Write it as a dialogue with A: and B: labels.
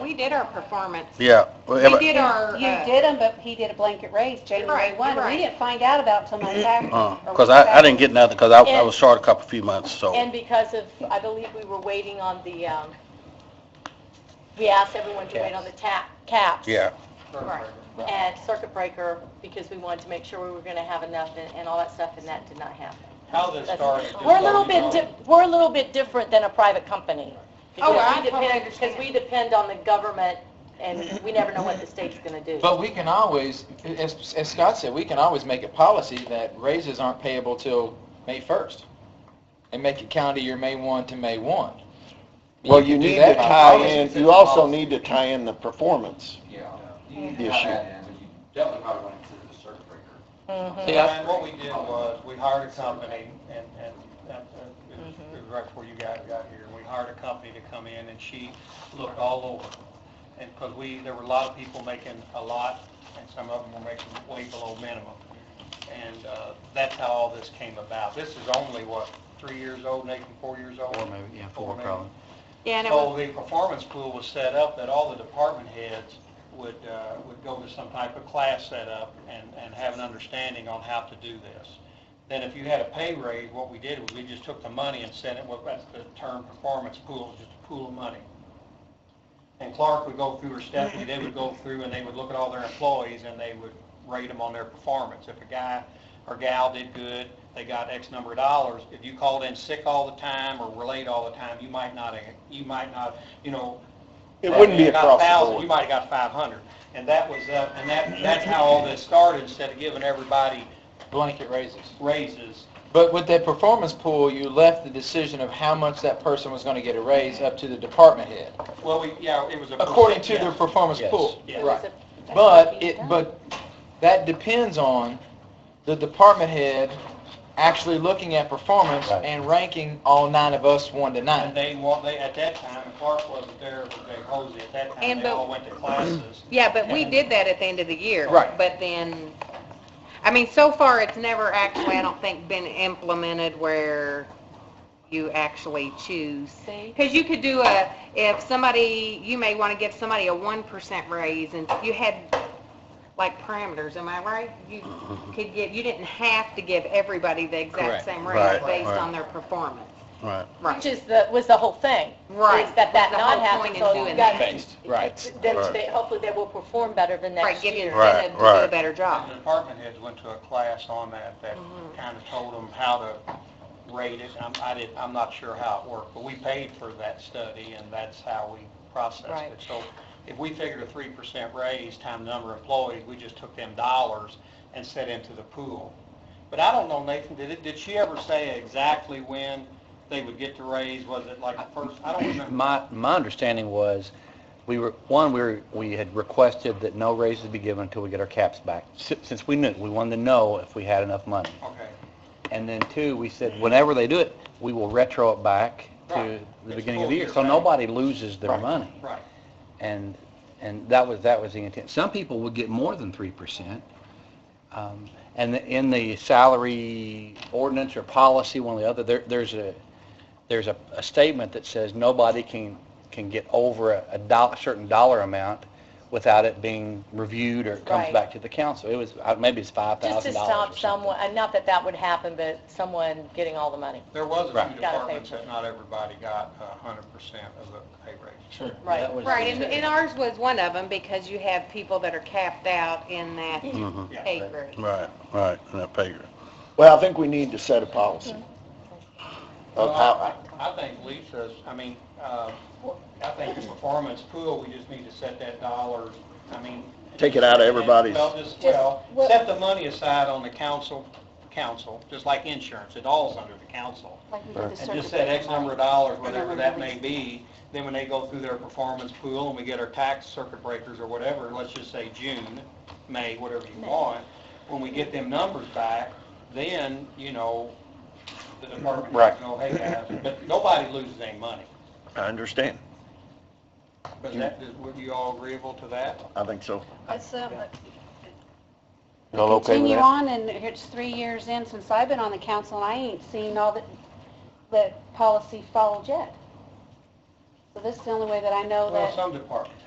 A: we did our performance.
B: Yeah. well,
A: We
B: but-
A: did our,
C: You
A: uh,
C: did them, but he did a blanket raise January
A: Right,
C: 1. We
A: right.
C: didn't find out about it till my tax.
B: Uh,
C: or
B: cause I, I didn't get nothing, cause I, I
D: Oh, And-
B: was short a couple, few months, so,
D: And because of, I believe we were waiting on the, um, we asked everyone to wait on the tap, caps.
B: yeah.
D: Right. And circuit breaker, because we wanted to make sure we were gonna have enough and, and all that stuff, and that did not happen.
E: How this
D: That's-
E: started. just
D: We're a
E: so
D: little
E: you
D: bit,
E: know.
D: di- we're a little bit different than a private company.
A: Oh,
D: Because
A: I
D: we
A: totally
D: depend- Because we depend on the government, and we never know what the state's gonna do.
E: But we can always, as, as Scott said, we can always make a policy that raises aren't payable till May 1st. And make it counter your May 1 to May 1.
F: Well,
E: can
F: you
E: do
F: need
E: that
F: to
E: by
F: tie
E: policy.
F: in, you also need to tie in the performance.
G: Yeah.
F: to tie that
G: you definitely probably want to consider the circuit breaker.
D: Mhm.
E: Yeah.
H: And what we did was, we hired a company, and, and, and it was- it was right before you guys got here, we hired a company to come in, and she looked all over. And, because we, there were a lot of people making a lot, and some of them were making way below minimum. And, uh, that's how all this came about. This is only, what, three years old, Nathan, four years old?
I: Four maybe, yeah, four
H: Four maybe.
I: probably.
A: yeah, and it
B: Oh.
A: was,
H: So the performance pool was set up that all the department heads would, uh, would go to some type of class setup and, and have an understanding on how to do this. Then if you had a pay raise, what we did was we just took the money and sent it, well, that's the term performance pool, just a pool of money. And Clark would go through, or Stephanie, they would go through and they would look at all their employees and they would rate them on their performance. If a guy or gal did good, they got X number of dollars. If you called in sick all the time or were late all the time, you might not, you might not, you know.
F: It wouldn't be
H: you got
F: across the
H: 1,000,
F: board.
H: You might have got five hundred. And that was, uh, and that, that's how all this started, instead of giving everybody
E: Blanket raises.
H: raises.
E: But with that performance pool, you left the decision of how much that person was going to get a raise up to the department head,
H: Well, we, yeah, it was a.
E: according to
H: percent,
E: their
H: yes.
E: performance
B: Yes.
E: pool.
H: Yes.
E: Right.
D: That's what
E: But
D: we've
E: it,
D: done.
E: but that depends on the department head actually looking at performance
B: Right.
E: and ranking all nine of us one to
H: And
E: nine.
H: they want, they, at that time, Clark wasn't there with Jay Hosey, at that time,
A: And
H: they
A: but-
H: all went to classes.
A: yeah, but we did that at the end of the year.
E: Right.
A: But then, I mean, so far, it's never actually, I don't think, been implemented where you actually choose.
D: See?
A: Because you could do a, if somebody, you may want to give somebody a one percent raise, and you had like parameters, am I right? You could give, you didn't have to give everybody the
E: Correct.
A: exact same
B: Right,
A: raise based
B: right.
A: on their performance.
B: Right.
D: Which is the, was the whole thing.
A: Right.
D: Is that that
A: That's the whole
D: not happen,
A: point in
D: so you
A: doing
D: got.
A: that.
E: Right.
D: Then
B: Right.
D: they, hopefully they will perform better the
A: Right,
D: next
A: give you
D: year.
B: Right,
A: incentive to do a
B: right.
A: better job.
H: The department heads went to a class on that, that kind of told them how to rate it, I'm, I didn't, I'm not sure how it worked, but we paid for that study, and that's how we processed
D: Right.
H: it. So if we figured a three percent raise times the number of employees, we just took them dollars and set into the pool. But I don't know, Nathan, did it, did she ever say exactly when they would get the raise, was it like the first, I don't remember.
I: My, my understanding was, we were, one, we were, we had requested that no raises be given until we get our caps back, si- since we knew, we wanted to know if we had enough money.
H: Okay.
I: And then two, we said, whenever they do it, we will retro it back to
H: Right.
I: the
H: It's
I: beginning of
H: full
I: the year,
H: year,
I: so
H: right.
I: nobody loses their money.
H: Right.
I: And, and that was, that was the intent. Some people would get more than three percent. um, And the- in the salary ordinance or policy, one or the other, there, there's a, there's a, a statement that says nobody can, can get over a, a dollar, certain dollar amount without it being reviewed or it comes
D: Right.
I: back to the council. It was, uh, maybe it's five
D: Just to
I: thousand dollars
D: stop
I: or something.
D: someone, and not that that would happen, but someone getting all the money.
H: There was a
I: Right.
H: few
D: Got a
H: departments
D: paper.
H: that not everybody got a hundred percent of the pay raise.
E: Sure.
D: Right.
I: That was the
A: Right, and,
I: intent.
A: and ours was one of them because you have people that are capped out in that
I: Mm-hmm.
B: Mhm.
H: Yeah.
A: pay grade.
B: Right, right, and that pay grade.
F: Well, I think we need to set a policy of
H: Well,
F: how,
H: I I think Lisa's, I mean, uh, I think the performance pool, we just need to set that dollar, I mean.
F: Take it out of everybody's-
H: Well, just, well, set the money aside on the council, council, just like insurance, it all's under the council. And just set X number of dollars, whatever that may be, then when they go through their performance pool and we get our tax circuit breakers or whatever, let's just say June, May, whatever you want, when we get them numbers back, then, you know, the department
F: Right.
H: can go, hey guys, but nobody loses any money.
F: I understand.
H: But that, would you all agreeable to that?
F: I think so. Y'all okay with
C: um, Continue
F: that?
C: on, and it's three years in since I've been on the council, and I ain't seen all the, the policy followed yet. So this is the only way that I know
H: Well,
C: that,
H: some departments